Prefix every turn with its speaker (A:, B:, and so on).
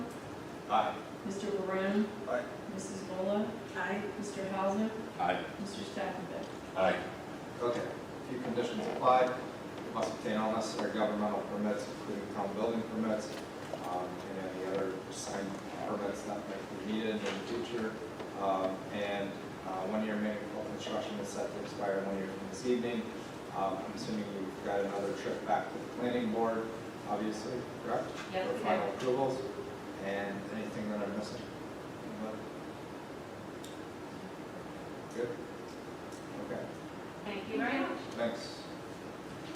A: Aye.
B: Mr. Varun?
C: Aye.
B: Mrs. Bullock? Aye. Mr. Hauser?
A: Aye.
B: Mr. Stafford?
A: Aye.
C: Okay, few conditions applied, must obtain all necessary governmental permits, including town building permits, um, and any other signed permits that might be needed in the future. Um, and, uh, one year manual construction is set to expire one year from this evening. Um, I'm assuming you've got another trip back to the planning board, obviously, correct?
B: Yes,
C: For
B: we
C: final
B: have.
C: approvals.